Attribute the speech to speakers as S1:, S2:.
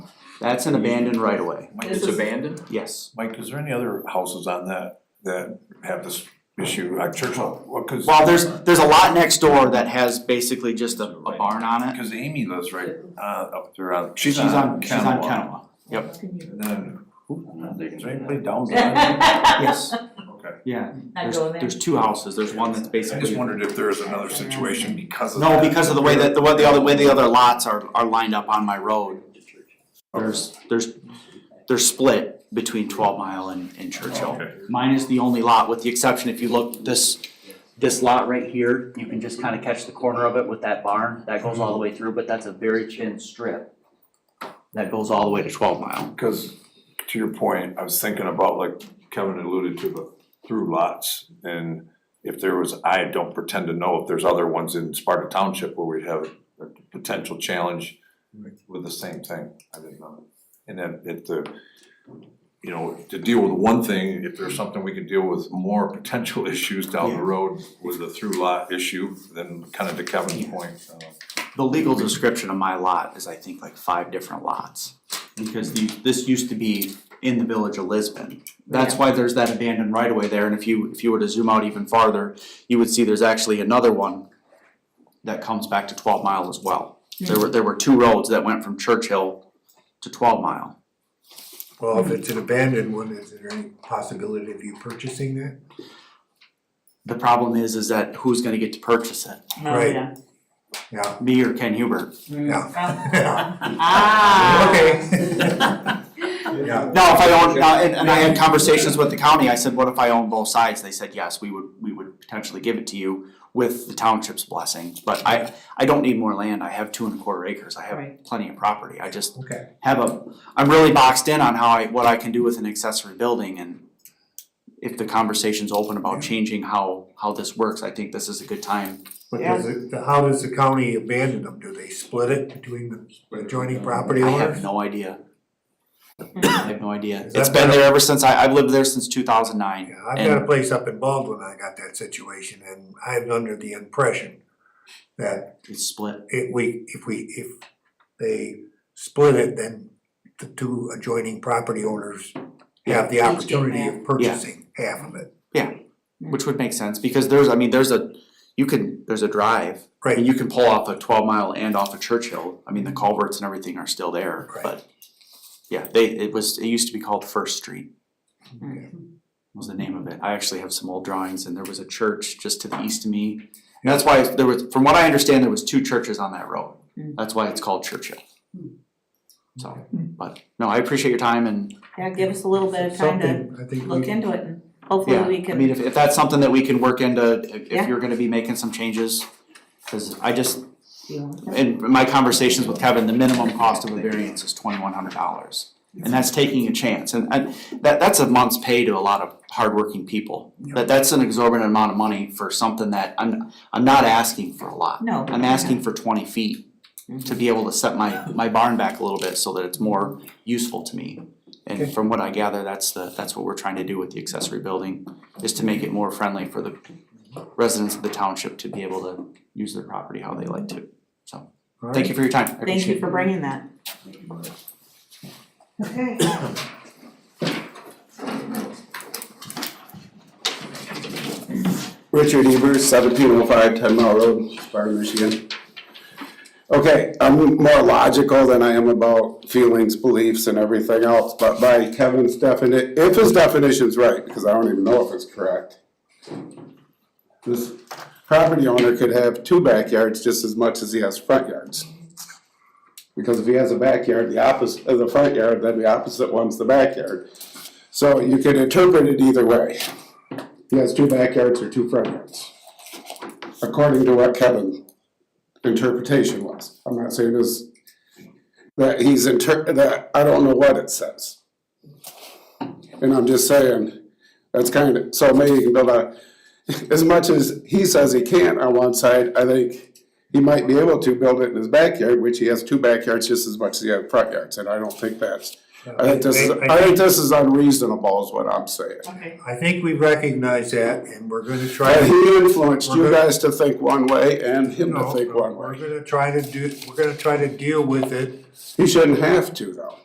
S1: That's an abandoned right of way,
S2: Mike,
S3: This
S2: is-
S3: is abandoned?
S1: yes.
S2: Mike, is there any other houses on that that have this issue, like Churchill, well, cause.
S1: Well, there's, there's a lot next door that has basically just a, a barn on it.
S2: Cause Amy lives right uh up there on.
S1: She's on, she's on
S2: Kenmore.
S1: Kenowa,
S2: And then, who, is there anybody down there?
S1: yes,
S2: Okay,
S1: yeah.
S4: Not
S1: There's,
S4: going there.
S1: there's two houses, there's one that's
S2: I just
S1: basically,
S2: wondered if there is another situation because of.
S1: no, because of the way that, the way, the other way the other lots are, are lined up on my road. There's, there's, they're split between Twelve Mile and, and Churchill.
S2: Okay.
S1: Mine is the only lot, with the exception, if you look, this, this lot right here, you can just kind of catch the corner of it with that barn. That goes all the way through, but that's a very thin strip that goes all the way to twelve mile.
S2: Cause to your point, I was thinking about like Kevin alluded to the through lots and if there was, I don't pretend to know if there's other ones in Sparta Township where we'd have a potential challenge with the same thing, I didn't know. And then if the, you know, to deal with one thing, if there's something we could deal with more potential issues down the
S1: Yeah.
S2: road with the through lot issue, then kind of to Kevin's point, uh,
S1: The legal description of my lot is, I think, like five different lots. Because the, this used to be in the village of Lisbon. That's why there's that abandoned right of way there, and if you, if you were to zoom out even farther, you would see there's actually another one that comes back to twelve mile as well. There were, there were two roads that went from Churchill to twelve mile.
S5: Well, if it's an abandoned one, is there any possibility of you purchasing that?
S1: The problem is, is that who's gonna get to purchase it?
S5: Right.
S4: yeah.
S5: Yeah,
S1: Me or Ken Huber?
S4: Mm-hmm.
S5: yeah.
S4: Uh, Ah.
S5: Okay. Yeah,
S1: No, if I own, no, and, and I had conversations with the county, I said, what if I own both sides? They said, yes, we would, we would potentially give it to you with the township's blessing, but I, I don't need more land, I have two and a quarter acres, I have
S4: Right.
S1: plenty of property, I just
S5: okay.
S1: have a, I'm really boxed in on how I, what I can do with an accessory building and if the conversation's open about changing how, how this works, I think this is a good time.
S5: But does it, how does the county abandon them? Do they split it between the adjoining property
S1: I have
S5: owners?
S1: no idea. I have no idea,
S5: Is that
S1: it's been
S5: better?
S1: there ever since, I, I've lived there since two thousand nine.
S5: Yeah, I've got a place up in Baldwin, I got that situation, and I'm under the impression that
S1: It's split,
S5: if we, if we, if they split it, then the two adjoining property owners have the
S4: Each get
S5: opportunity of purchasing half of it.
S1: which would make sense, because there's, I mean, there's a, you can, there's a drive.
S5: Right.
S1: And you can pull off a twelve mile and off of Churchill, I mean, the culverts and everything are still there,
S5: Right.
S1: but. Yeah, they, it was, it used to be called First Street,
S5: Okay.
S1: was the name of it, I actually have some old drawings, and there was a church just to the east of me. And that's why there was, from what I understand, there was two churches on that road,
S4: Mm.
S1: that's why it's called Churchill.
S5: Mm.
S1: So,
S4: Mm.
S1: but, no, I appreciate your time and,
S4: Yeah, give us a little bit of time to
S5: Something, I think
S4: look
S5: we,
S4: into it and hopefully
S1: yeah,
S4: we
S1: I
S4: can.
S1: mean, if, if that's something that we can work into, if-
S4: Yeah.
S1: if you're gonna be making some changes. Cause I just,
S4: Yeah.
S1: in my conversations with Kevin, the minimum cost of a variance is twenty-one hundred dollars. And that's taking a chance, and I, that, that's a month's pay to a lot of hardworking people. That, that's an exorbitant amount of money for something that, I'm, I'm not asking for a lot.
S4: No.
S1: I'm asking for twenty feet to be able to set my, my barn back a little bit so that it's more useful to me. And from what I gather, that's the, that's what we're trying to do with the accessory building, is to make it more friendly for the residents of the township to be able to use their property how they like to.
S5: all
S1: Thank you for your time, I
S4: Thank
S1: appreciate
S4: you
S1: it.
S4: for bringing that. Okay.
S6: Richard Evers, seventeen oh five Ten Mile Road, Sparta, Michigan. Okay, I'm more logical than I am about feelings, beliefs and everything else, but by Kevin's definition, if his definition's right, because I don't even know if it's correct. This property owner could have two backyards just as much as he has front yards. Because if he has a backyard, the opposite, uh, the front yard, then the opposite one's the backyard. So you can interpret it either way. He has two backyards or two front yards. According to what Kevin's interpretation was. I'm not saying this, that he's inter, that, I don't know what it says. And I'm just saying, that's kind of, so maybe you can build a, as much as he says he can't on one side, I think he might be able to build it in his backyard, which he has two backyards just as much as he has front yards, and I don't think that's, I think this is, I think this is unreasonable is what I'm saying.
S4: Okay.
S5: I think we recognize that and we're gonna try
S6: And
S5: to.
S6: he influenced you
S5: We're good.
S6: guys to think one way and him to
S5: No, Uh-huh.
S6: think one
S5: We're
S6: way.
S5: gonna try to do, we're gonna try to deal with it
S6: He shouldn't have to though.